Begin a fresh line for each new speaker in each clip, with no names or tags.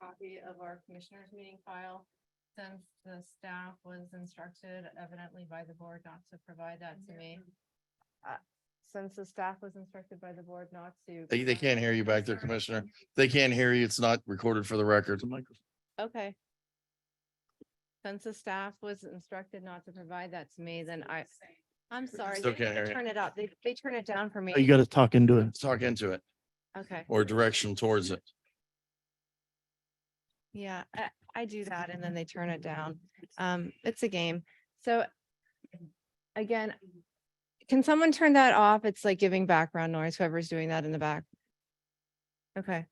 copy of our commissioners meeting file. Since the staff was instructed evidently by the board not to provide that to me. Uh, Since the staff was instructed by the board not to.
They, they
provide-
can't hear you back there,
Sorry.
Commissioner. They can't hear you. It's not recorded for the record.
Okay. Since the staff was instructed not to provide that to me, then I, I'm sorry.
Still
they-
can't
they
hear you.
Turn it up. They, they turn it down for me.
Oh, You gotta talk into it.
Let's talk into it
Okay,
or direction towards it.
yeah, I, I do that and then they turn it down. Um, it's a game. So again, can someone turn that off? It's like giving background noise, whoever's doing that in the back. Okay.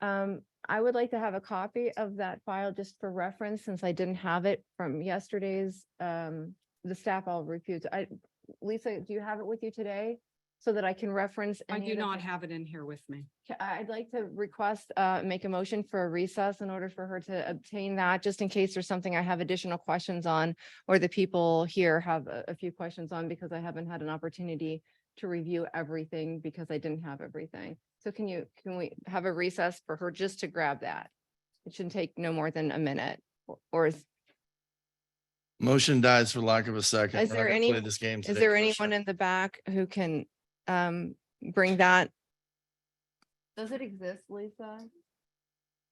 Um, I would like to have a copy of that file just for reference, since I didn't have it from yesterday's, um, the staff all refused. I, Lisa, do you have it with you today? So that I can reference.
I
any
do
of the
not
things?
have it in here with me.
Ca- I- I'd like to request, uh, make a motion for a recess in order for her to obtain that, just in case there's something I have additional questions on. Or the people here have a, a few questions on because I haven't had an opportunity to review everything because I didn't have everything. So can you, can we have a recess for her just to grab that? It shouldn't take no more than a minute or- or is,
Motion dies for lack of a second.
Is
We're not
there
gonna
any-
play This game.
is
today,
there
Commissioner.
anyone in the back who can, um, bring that? Does it exist, Lisa?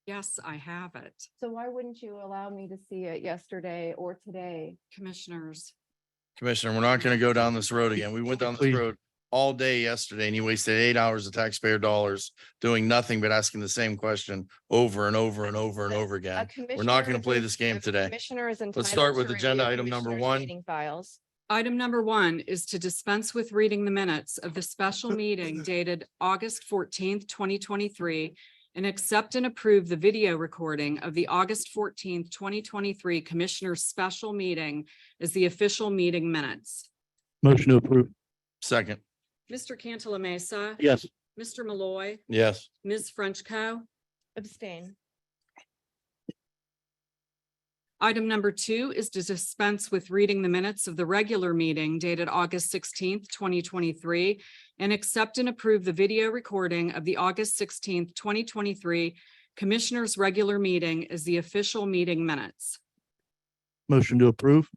Yes, I have it.
So why wouldn't you allow me to see it yesterday or today?
Commissioners,
Commissioner, we're not gonna go down this road again. We went down this
Please.
road all day yesterday and you wasted eight hours of taxpayer dollars doing nothing but asking the same question over and over and over and over
A
again.
commissioner
not gonna
is
play
en-
this game
a
today.
Commissioner is entitled.
Let's start with
to
agenda
review
item number
commissioners'
one.
meeting Files.
item number one is to dispense with reading the minutes of the special meeting dated August fourteenth, twenty twenty-three, and accept and approve the video recording of the August fourteenth, twenty twenty-three Commissioners' Special Meeting as the official meeting minutes.
Motion to approve.
Second,
Mr. Cantala Mesa,
Yes.
Mr. Malloy,
yes.
Ms. Frenchco.
Abstain.
Item number two is to dispense with reading the minutes of the regular meeting dated August sixteenth, twenty twenty-three, and accept and approve the video recording of the August sixteenth, twenty twenty-three Commissioners' Regular Meeting as the official meeting minutes.
Motion to approve.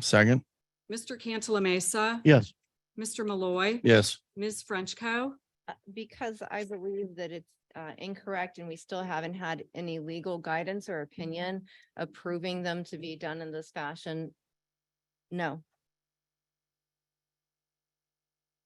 Second,
Mr. Cantala Mesa.
Yes.
Mr. Malloy.
yes.
Ms. Frenchco.
Uh, Because I believe that it's uh, incorrect and we still haven't had any legal guidance or opinion approving them to be done in this fashion. No,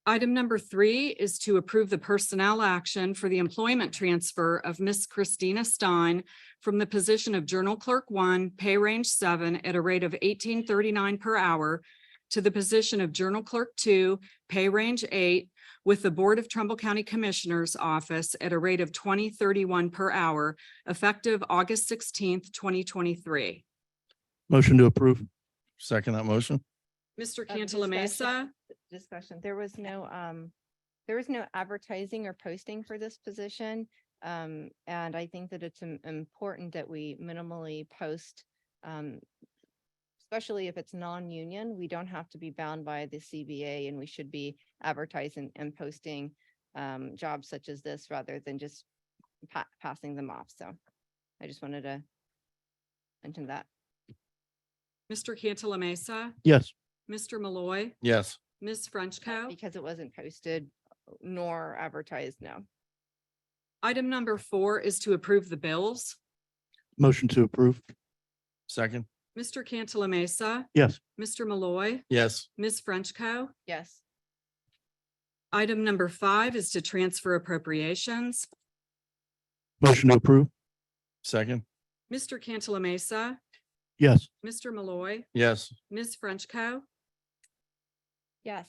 Item number three is to approve the personnel action for the employment transfer of Miss Christina Stein from the position of Journal Clerk One, pay range seven, at a rate of eighteen thirty-nine per hour to the position of Journal Clerk Two, pay range eight, with the Board of Trumbull County Commissioners Office at a rate of twenty thirty-one per hour, effective August sixteenth, twenty twenty-three.
Motion to approve.
Second that motion.
Mr.
Uh,
Cantala Mesa,
discussion. discussion. There was no, um, there was no advertising or posting for this position. Um, and I think that it's im- important that we minimally post, um, especially if it's non-union, we don't have to be bound by the CBA and we should be advertising and posting, um, jobs such as this rather than just pa- passing them off. So I just wanted to mention that.
Mr. Cantala Mesa,
Yes.
Mr. Malloy,
Yes.
Ms.
uh,
Frenchco.
Because it wasn't posted nor advertised, no.
Item number four is to approve the bills.
Motion to approve.
Second,
Mr. Cantala Mesa.
Yes.
Mr. Malloy,
yes.
Ms. Frenchco.
Yes.
Item number five is to transfer appropriations.
Motion to approve.
Second,
Mr. Cantala Mesa,
Yes.
Mr. Malloy,
yes.
Ms. Frenchco.
Yes.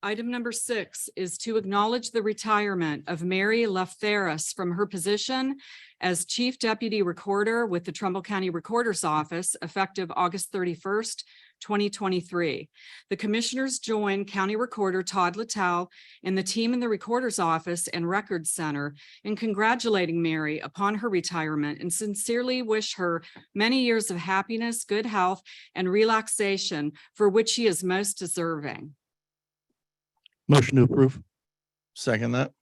Item number six is to acknowledge the retirement of Mary Lefteris from her position as Chief Deputy Recorder with the Trumbull County Recorder's Office effective August thirty-first, twenty twenty-three. The Commissioners join County Recorder Todd Littell and the team in the Recorder's Office and Records Center in congratulating Mary upon her retirement and sincerely wish her many years of happiness, good health, and relaxation for which she is most deserving.
Motion to approve.
Second that,